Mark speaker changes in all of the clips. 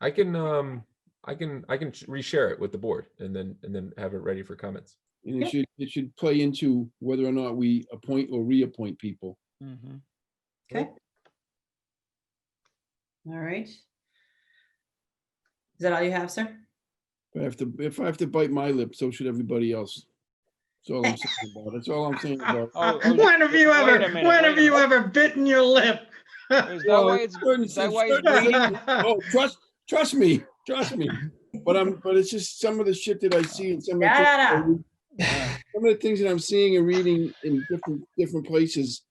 Speaker 1: I can, um, I can, I can reshare it with the board and then, and then have it ready for comments.
Speaker 2: And it should, it should play into whether or not we appoint or reappoint people.
Speaker 3: Mhm.
Speaker 4: Okay. All right. Is that all you have, sir?
Speaker 2: If I have to, if I have to bite my lip, so should everybody else. That's all I'm saying about it. That's all I'm saying about it.
Speaker 3: Oh, oh,
Speaker 5: When have you
Speaker 3: wait a
Speaker 5: ever,
Speaker 3: minute,
Speaker 5: when
Speaker 3: wait
Speaker 5: have
Speaker 3: a
Speaker 5: you
Speaker 3: minute.
Speaker 5: ever bitten your lip?
Speaker 3: Is that why it's,
Speaker 2: Certain-
Speaker 3: is that why it's
Speaker 2: certain-
Speaker 3: green?
Speaker 2: Oh, trust, trust me, trust me. But I'm, but it's just some of the shit that I see and some of the things that I
Speaker 4: Yada.
Speaker 2: read- some of the things that I'm seeing and reading in different, different places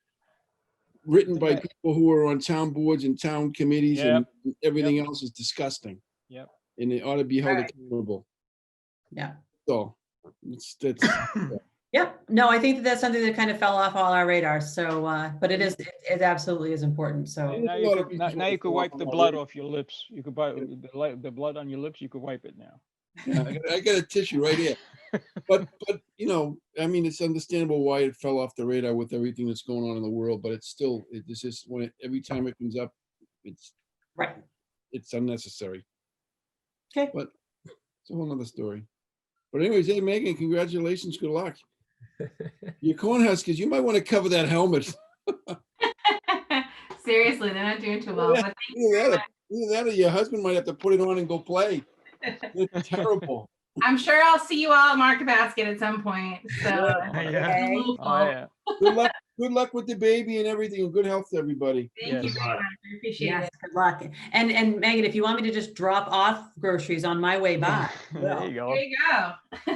Speaker 2: written by
Speaker 3: Okay.
Speaker 2: people who are on town boards and town committees and everything else is disgusting.
Speaker 3: Yep.
Speaker 2: And they ought to be held
Speaker 4: Right.
Speaker 2: accountable.
Speaker 4: Yeah.
Speaker 2: So, it's, that's,
Speaker 4: Yep. No, I think that that's something that kind of fell off all our radar. So, uh, but it is, it it absolutely is important. So,
Speaker 3: Now you could, now- now you could wipe the blood off your lips. You could buy, the li- the blood on your lips, you could wipe it now.
Speaker 2: Yeah, I got- I got a tissue right here. But, but, you know, I mean, it's understandable why it fell off the radar with everything that's going on in the world, but it's still, it- it's just when, it- every time it comes up, it's,
Speaker 4: right.
Speaker 2: it's unnecessary.
Speaker 4: Okay.
Speaker 2: But it's a whole nother story. But anyways, hey Megan, congratulations, good luck. Your Cornhuskers, you might want to cover that helmet.
Speaker 6: Seriously, they're not doing too well.
Speaker 2: Yeah.
Speaker 6: But
Speaker 2: Either that or- either that or your husband might have to put it on and go play. It's terrible.
Speaker 6: I'm sure I'll see you all at Market Basket at some point. So
Speaker 5: Yeah.
Speaker 6: it's a
Speaker 4: Okay.
Speaker 6: little
Speaker 3: Oh,
Speaker 6: full.
Speaker 3: yeah.
Speaker 2: Good luck, good luck with the baby and everything, and good health to everybody.
Speaker 6: Thank you
Speaker 3: Yes.
Speaker 6: very much. I appreciate
Speaker 4: Yes,
Speaker 6: it.
Speaker 4: good luck. And, and Megan, if you want me to just drop off groceries on my way by.
Speaker 3: There you go.
Speaker 6: There you go.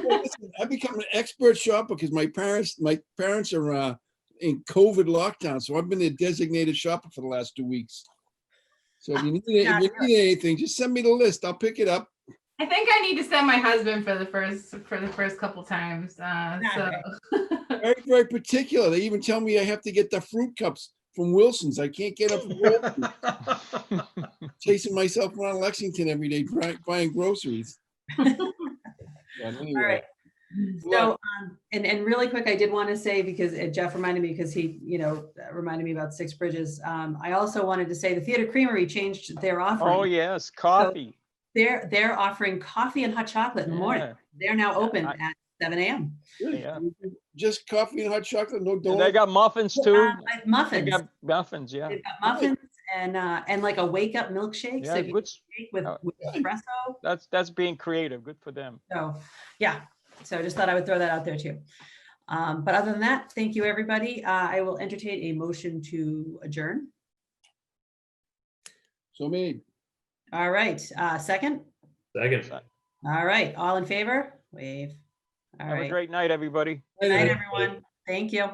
Speaker 2: Well, listen, I become an expert shopper because my parents, my parents are uh, in COVID lockdown, so I've been a designated shopper for the last two weeks. So if you need, any- if you need anything, just send me the list. I'll pick it up.
Speaker 6: I think I need to send my husband for the first for the first couple times. Uh, so
Speaker 2: Very, very particular. They even tell me I have to get the fruit cups from Wilson's. I can't get up from Wilson's. chasing myself around Lexington every day bri- buying groceries. Yeah, anyway,
Speaker 4: All right.
Speaker 2: good luck.
Speaker 4: So, um, and, and really quick, I did want to say, because uh, Jeff reminded me, because he, you know, reminded me about Six Bridges. Um, I also wanted to say the Theater Creamery changed their
Speaker 3: Oh,
Speaker 4: offering.
Speaker 3: yes, coffee.
Speaker 4: They're, they're offering coffee and hot chocolate in the morning.
Speaker 3: Yeah.
Speaker 4: They're now open
Speaker 3: I-
Speaker 4: at seven AM.
Speaker 2: Good.
Speaker 3: yeah.
Speaker 2: Just coffee and hot chocolate, no
Speaker 3: And they
Speaker 2: donuts.
Speaker 3: got muffins too.
Speaker 4: Uh, like
Speaker 3: They
Speaker 4: Muffins,
Speaker 3: got muffins, yeah.
Speaker 4: they've got muffins and, uh, and like a wake up milkshake. so
Speaker 3: Yeah,
Speaker 4: you can
Speaker 3: good. s-
Speaker 4: shake With
Speaker 3: Oh.
Speaker 4: with espresso.
Speaker 3: That's, that's being creative. Good for them.
Speaker 4: So, yeah, so I just thought I would throw that out there too. Um, but other than that, thank you, everybody. Uh, I will entertain a motion to adjourn.
Speaker 2: So made.
Speaker 4: All right, uh, second.
Speaker 5: Second.
Speaker 4: All right, all in favor? Wave. All
Speaker 3: Have a
Speaker 4: right.
Speaker 3: great night, everybody.
Speaker 4: Good night, everyone. Thank you.